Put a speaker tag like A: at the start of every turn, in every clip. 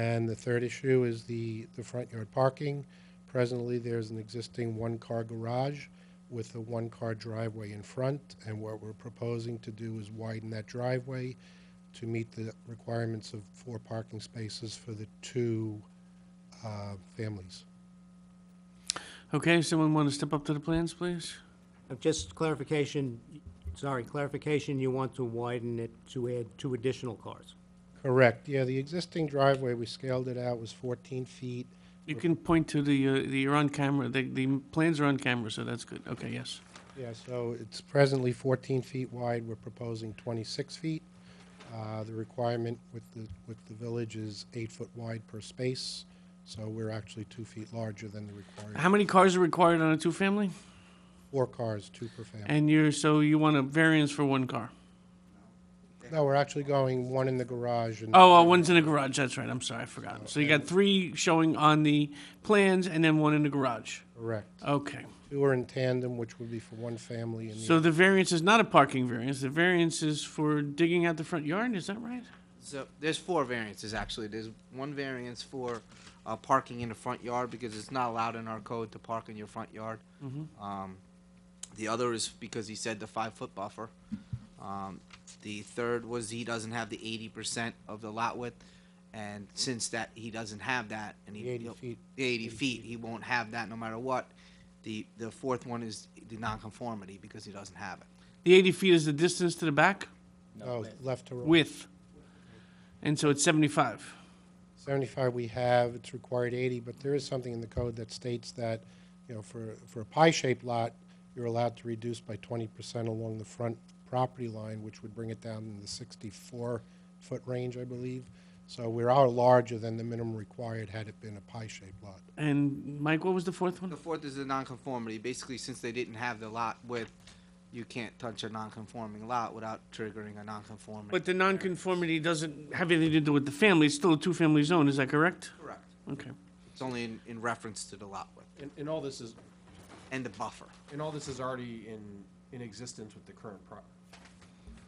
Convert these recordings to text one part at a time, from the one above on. A: And the third issue is the, the front yard parking. Presently, there's an existing one-car garage with a one-car driveway in front, and what we're proposing to do is widen that driveway to meet the requirements of four parking spaces for the two uh, families.
B: Okay, someone want to step up to the plans, please?
C: Uh, Just clarification, sorry, clarification, you want to widen it to add two additional cars?
A: Correct, yeah, the existing driveway, we scaled it out, was 14 feet.
B: You can point to the, uh, the, you're on camera, the, the plans are on camera, so that's good. Okay, yes.
A: Yeah, so it's presently 14 feet wide, we're proposing 26 feet. Uh, The requirement with the, with the village is eight foot wide per space, so we're actually two feet larger than the required.
B: How many cars are required on a two-family?
A: Four cars, two per family.
B: And you're, so you want a variance for one car?
A: No, we're actually going one in the garage and,
B: Oh, uh, one's in the garage, that's right, I'm sorry, I forgot. So you got three showing on the plans and then one in the garage.
A: correct.
B: Okay,
A: Two are in tandem, which would be for one family and the,
B: so the variance is not a parking variance, the variance is for digging out the front yard, is that right?
D: So there's four variances actually. There's one variance for uh, parking in the front yard because it's not allowed in our code to park in your front yard.
A: Mm-hmm.
D: Um, the other is because he said the five foot buffer. Um, the third was he doesn't have the eighty percent of the lot width, and since that he doesn't have that, and he
A: The 80
D: he'll-
A: feet.
D: the 80 feet, he won't have that no matter what. The the fourth one is the nonconformity because he doesn't have it.
B: The 80 feet is the distance to the back
A: no, left to right.
B: width, and so it's 75.
A: 75 we have, it's required 80, but there is something in the code that states that, you know, for, for a pie-shaped lot, you're allowed to reduce by 20% along the front property line, which would bring it down in the 64-foot range, I believe. So we're out larger than the minimum required had it been a pie-shaped lot.
B: And Mike, what was the fourth one?
D: The fourth is the nonconformity. Basically, since they didn't have the lot width, you can't touch a nonconforming lot without triggering a nonconformity.
B: But the nonconformity doesn't have anything to do with the family, it's still a two-family zone, is that correct?
D: Correct.
B: Okay.
D: It's only in, in reference to the lot width
E: And, and all this is,
D: and the buffer.
E: and all this is already in, in existence with the current pro-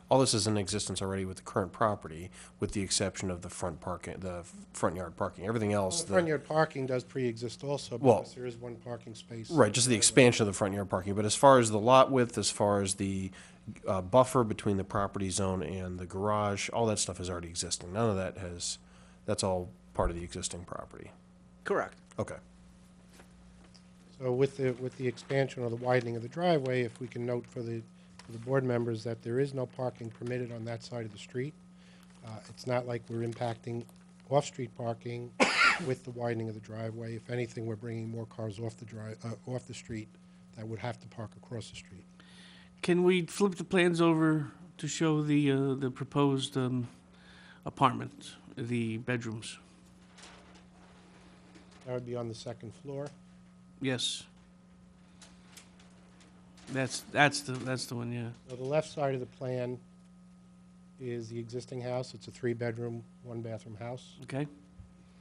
E: all this is in existence already with the current property, with the exception of the front parking, the front yard parking. Everything else,
A: Well, Front
E: the,
A: yard parking does pre-exist also,
E: Well-
A: because there is one parking space.
E: right, just the expansion of the front yard parking. But as far as the lot width, as far as the uh, buffer between the property zone and the garage, all that stuff is already existing. None of that has, that's all part of the existing property.
D: Correct.
E: Okay.
A: So with the, with the expansion or the widening of the driveway, if we can note for the, for the board members that there is no parking permitted on that side of the street. Uh, It's not like we're impacting off-street parking with the widening of the driveway. If anything, we're bringing more cars off the dri, uh, off the street that would have to park across the street.
B: Can we flip the plans over to show the, uh, the proposed um, apartment, the bedrooms?
A: That would be on the second floor.
B: Yes. That's, that's the, that's the one, yeah.
A: Now, the left side of the plan is the existing house. It's a three-bedroom, one-bathroom house.
B: Okay?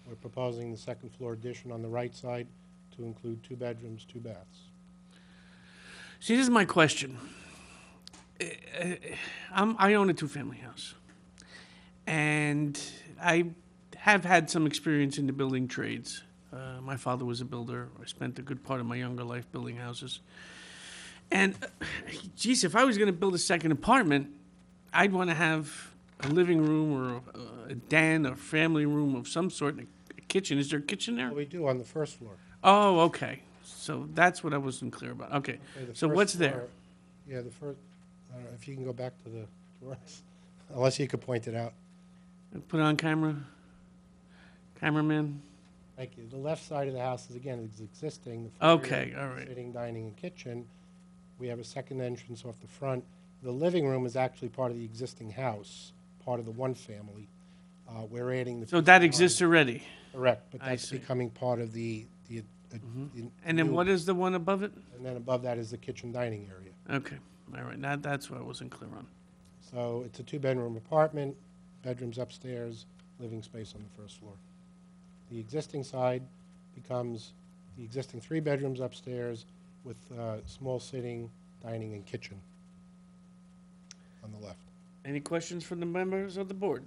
A: We're proposing the second floor addition on the right side to include two bedrooms, two baths.
B: See, this is my question. Eh, eh, I'm, I own a two-family house, and I have had some experience in the building trades. Uh, my father was a builder. I spent a good part of my younger life building houses. And, uh, geez, if I was going to build a second apartment, I'd want to have a living room or a, a den or family room of some sort, and a kitchen. Is there a kitchen there?
A: Well, Oh, we do on the first floor.
B: Oh, okay. So that's what I wasn't clear about. Okay.
A: Okay, the
B: So
A: first
B: what's there?
A: floor- Yeah, the first, I don't know, if you can go back to the drawings, unless you could point it out.
B: Put it on camera. Cameraman.
A: Thank you. The left side of the house is, again, is existing. the foyer,
B: Okay, all right.
A: Sitting, dining, and kitchen. We have a second entrance off the front. The living room is actually part of the existing house, part of the one family. Uh, We're adding the.
B: So that exists already.
A: Correct, but
B: I
A: that's
B: see. Mm-hmm.
A: becoming part of the, the. uh, the
B: And then
A: new-
B: what is the one above it?
A: And then above that is the kitchen dining area.
B: Okay. All right. Now that's what I wasn't clear on.
A: So it's a two-bedroom apartment, bedrooms upstairs, living space on the first floor. The existing side becomes the existing three bedrooms upstairs with uh, small sitting, dining, and kitchen on the left.
B: Any questions from the members of the board?